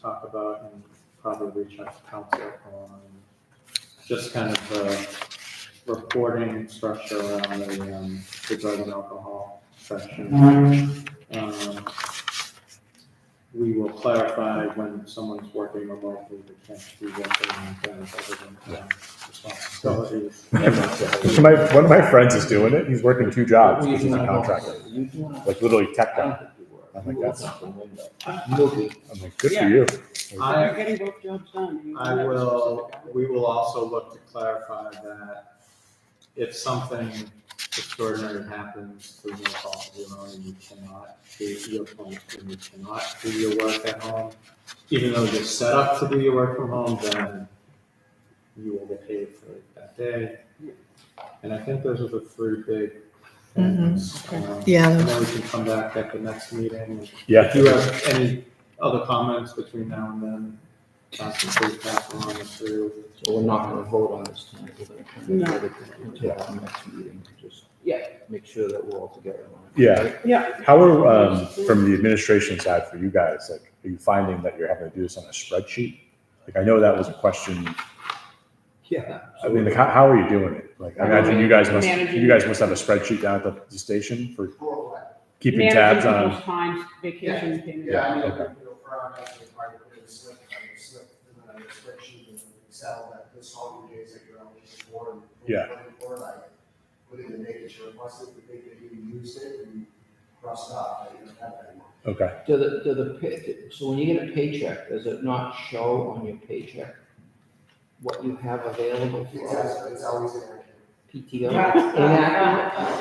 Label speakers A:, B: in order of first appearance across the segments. A: talk about and probably reach out to council on just kind of the reporting structure around the, um, the drug and alcohol section. Um, We will clarify when someone's working remotely, they can't be working on things other than um, responsibilities.
B: My, one of my friends is doing it. He's working two jobs because he's a contractor,
C: You do not.
B: like literally tech
C: I don't
B: guy.
C: think you were.
B: I think
C: You
B: that's-
C: opened the window. Look at-
B: I'm like, good
D: Yeah.
B: for you.
A: I-
D: You're getting both jobs done. You
A: I
D: have a
A: will,
D: specific-
A: we will also look to clarify that if something extraordinary happens, we will call you on and you cannot do your point and you cannot do your work at home. Even though you're set up to do your work from home, then you will get paid for it that day. And I think those are the three big things. Um,
E: Yeah,
A: And then we can come back at the next meeting and if you
B: Yeah.
A: have any other comments between now and then, Justin, please pass along through.
C: So we're not gonna vote on this tonight. We're gonna kind of
D: No.
C: put it until our next meeting, just.
D: Yeah.
C: Make sure that we're all together.
B: Yeah.
D: Yeah.
B: How are, um, from the administration side for you guys, like, are you finding that you're having to do this on a spreadsheet? Like, I know that was a question.
C: Yeah.
B: I mean, like, how, how are you doing it? Like, I imagine you guys must, you guys must have a spreadsheet down at the station for keeping tabs
D: Managing
B: on.
D: people's times, vacation payments.
F: Yeah, I mean,
B: okay.
F: you know, for our actually part of it is slick, I mean, slick, and then a spreadsheet in Excel that this all your days that you're eligible for. and what you're
B: Yeah.
F: looking For like, within the day that you requested, the day that you used it, and cross it off, that you don't have that anymore.
B: Okay.
C: Do the, do the, pa- so when you get a paycheck, does it not show on your paycheck what you have available for
F: Exactly, it's always there.
C: PTO?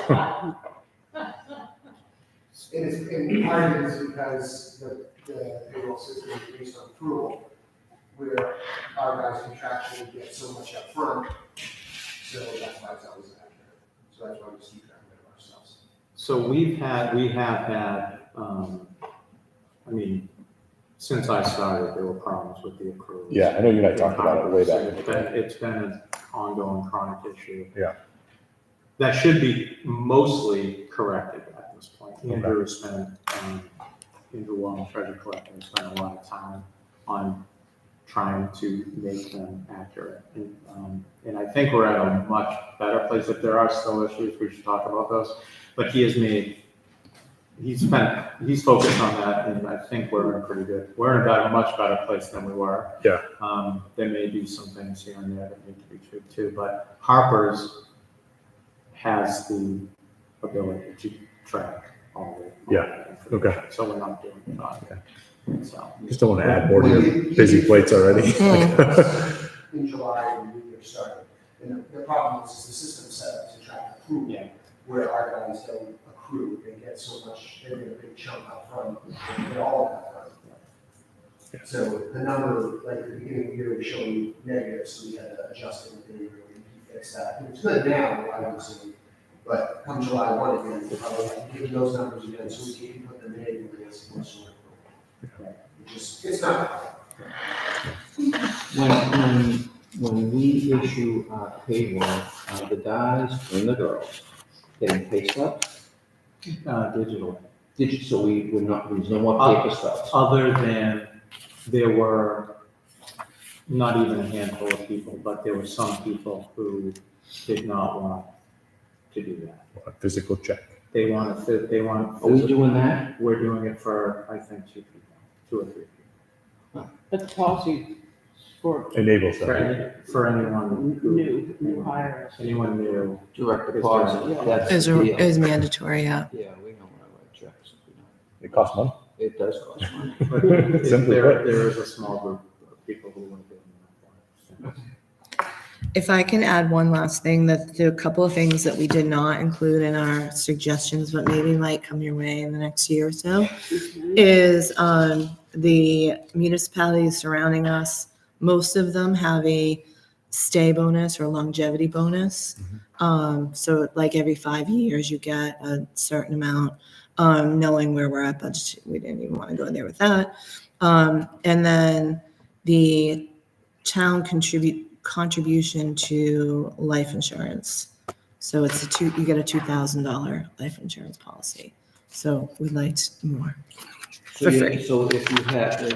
D: Uh,
F: It is, and part of it is because the, the payroll system is based on approval, where our guys contractually get so much upfront, so that's why it's always accurate. So that's why we just keep track of it ourselves.
A: So we've had, we have had, um, I mean, since I started, there were problems with the accruals.
B: Yeah, I know you and I talked about it way back. in the
A: It's
B: day.
A: been, it's been an ongoing chronic issue.
B: Yeah.
A: That should be mostly corrected at this point. Andrew has spent, um, Andrew Wong, treasure collector, has spent a lot of time on trying to make them accurate. And, um, and I think we're at a much better place. If there are still issues, we should talk about those. But he has made, he's spent, he's focused on that, and I think we're in a pretty good, we're in about a much better place than we were.
B: Yeah.
A: Um, there may be some things here and there that need to be tweaked too, but Harper's has the ability to track all the.
B: Yeah, okay.
A: So we're not doing it on, so.
B: Just don't want to add more to your busy plates already.
F: In July, when we were starting, and the- the problem is the system set up to track accrual.
A: Yeah.
F: Where our guys don't accrue, they get so much, they get a big chunk upfront, they get all of that upfront. So the number, like at the beginning of the year, was showing negative, so we had to adjust it, and we fixed that. It's good now, obviously, but come July one again, we'll probably have to give those numbers again, so we can put them in, and it's more sort of. It just, it's not,
C: When, when, when we issue our payroll, uh, the guys and the girls getting pay stubs,
A: Uh, digital.
C: digit, so we would not, there's no more paper stubs.
A: other than there were not even a handful of people, but there were some people who did not want to do that.
B: A Physical check.
A: They wanted, to- they wanted,
C: Are we doing that?
A: we're doing it for, I think, two people, two or three.
D: That's policy for
B: Enables
A: For
B: that.
A: any, for anyone who,
D: new, new hires.
A: anyone new.
C: Direct
A: It's
C: deposit,
D: direct.
C: that's
E: is,
C: the deal.
E: is mandatory, yeah.
C: Yeah, we don't wanna write checks if we don't.
B: It costs money.
C: It does cost money.
A: but if
B: Simply
A: There,
B: put.
A: there is a small group of people who want to do it.
E: If I can add one last thing, that there are a couple of things that we did not include in our suggestions, but maybe might come your way in the next year or so, is um, the municipalities surrounding us, most of them have a stay bonus or longevity bonus. Um, So like every five years, you get a certain amount, um, knowing where we're at budget. We didn't even want to go there with that. Um, And then the town contribute, contribution to life insurance. So it's a two, you get a two thousand dollar life insurance policy. So we'd like more.
C: So
E: For
C: you-
E: free.
C: So if you had,